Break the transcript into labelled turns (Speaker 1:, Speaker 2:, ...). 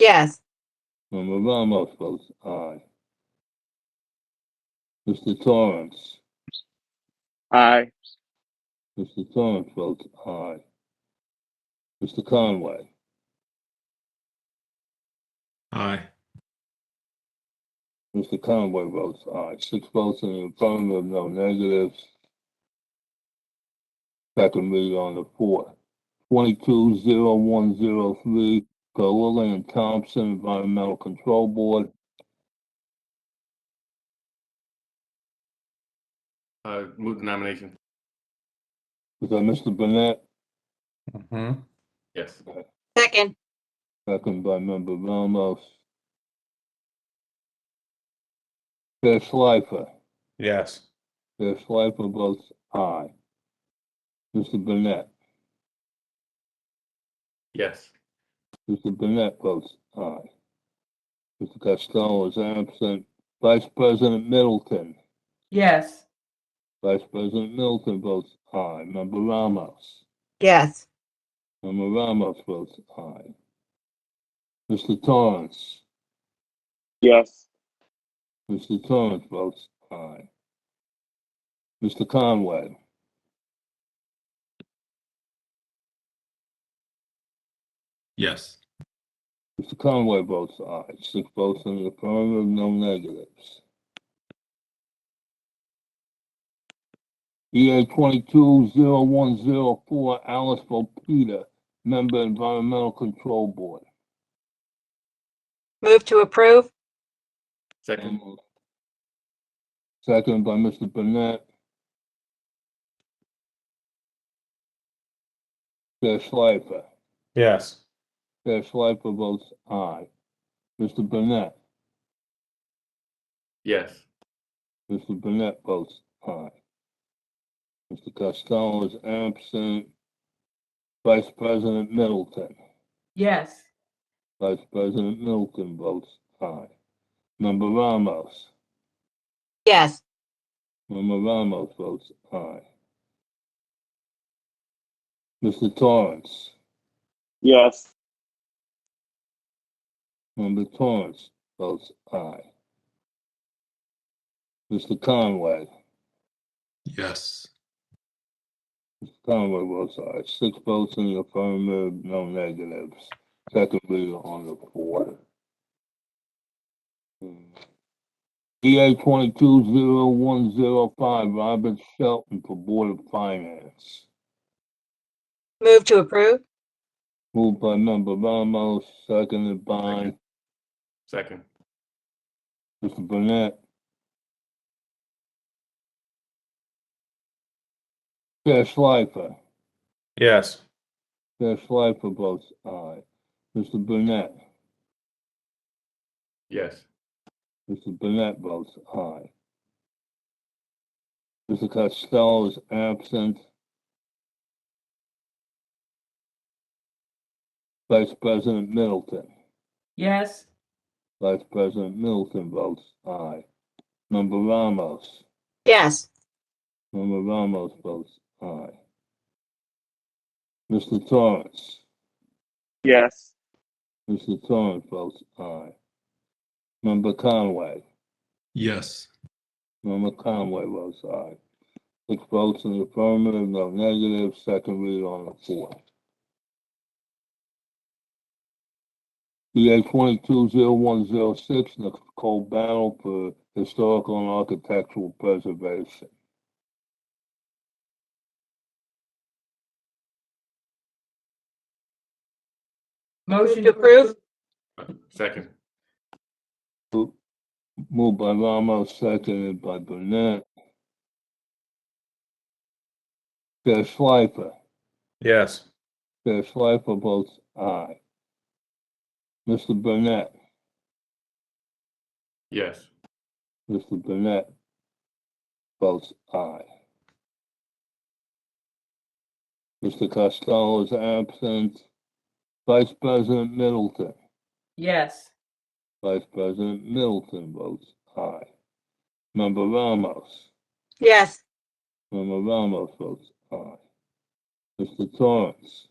Speaker 1: Yes.
Speaker 2: Member Ramos votes aye. Mr. Torrance,
Speaker 3: Aye.
Speaker 2: Mr. Torrance votes aye. Mr. Conway,
Speaker 4: Aye.
Speaker 2: Mr. Conway votes aye. Six votes in the affirmative, no negatives. Second read on the fourth. Twenty-two zero one zero three, Gorilla and Thompson Environmental Control Board.
Speaker 5: Uh, move the nomination.
Speaker 2: Is that Mr. Burnett?
Speaker 4: Mm-hmm.
Speaker 5: Yes.
Speaker 1: Second.
Speaker 2: Second by member Ramos. Chair Schleifer,
Speaker 4: Yes.
Speaker 2: Chair Schleifer votes aye. Mr. Burnett,
Speaker 5: Yes.
Speaker 2: Mr. Burnett votes aye. Mr. Costello is absent. Vice President Middleton,
Speaker 6: yes,
Speaker 2: Vice President Middleton votes aye. Member Ramos,
Speaker 1: Yes.
Speaker 2: member Ramos votes aye. Mr. Torrance,
Speaker 3: Yes.
Speaker 2: Mr. Torrance votes aye. Mr. Conway,
Speaker 4: Yes.
Speaker 2: Mr. Conway votes aye. Six votes in the affirmative, no negatives. EA E twenty-two zero one zero four, Alice Peter, Member Environmental Control Board.
Speaker 1: Move to approve?
Speaker 5: Second.
Speaker 2: Second by Mr. Burnett. Chair Schleifer.
Speaker 4: Yes.
Speaker 2: Chair Schleifer votes aye. Mr. Burnett.
Speaker 5: Yes.
Speaker 2: Mr. Burnett votes aye. Mr. Costello is absent. Vice President Middleton.
Speaker 6: yes,
Speaker 2: Vice President Middleton votes aye. Member Ramos.
Speaker 1: Yes.
Speaker 2: Member Ramos votes aye. Mr. Torrance.
Speaker 3: Yes.
Speaker 2: Member Torrance votes aye. Mr. Conway.
Speaker 4: Yes.
Speaker 2: Conway votes aye. uh, Six votes in the affirmative, no negatives. Second reader on the fourth. EA twenty-two zero one zero five, Robert Shelton for Board of Finance.
Speaker 1: Move to approve?
Speaker 2: Moved by member Ramos, seconded by
Speaker 5: Second.
Speaker 2: Mr. Burnett. Chair Schleifer.
Speaker 4: Yes.
Speaker 2: Chair Schleifer votes aye. Mr. Burnett.
Speaker 5: Yes.
Speaker 2: Mr. Burnett votes aye. Mr. Costello is absent. Vice President Middleton.
Speaker 6: yes,
Speaker 2: Vice President Middleton votes aye. Member Ramos.
Speaker 1: Yes.
Speaker 2: Member Ramos votes aye. Mr. Torrance.
Speaker 3: Yes.
Speaker 2: Mr. Torrance votes aye. Member Conway.
Speaker 4: Yes.
Speaker 2: Member Conway votes aye. Six votes in the affirmative, no negative, second read on the fourth. EA twenty-two zero one zero six, Nicole Battle for Historical and Architectural Preservation.
Speaker 6: motion
Speaker 1: to approve?
Speaker 5: Second.
Speaker 2: Moved by Ramos, seconded by Burnett. Chair Schleifer.
Speaker 4: Yes.
Speaker 2: Chair Schleifer votes aye. Mr. Burnett.
Speaker 5: Yes.
Speaker 2: Mr. Burnett votes aye. Mr. Costello is absent. Vice President Middleton.
Speaker 6: yes,
Speaker 2: Vice President Middleton votes aye. Member Ramos.
Speaker 1: Yes.
Speaker 2: Member Ramos votes aye. Mr. Torrance.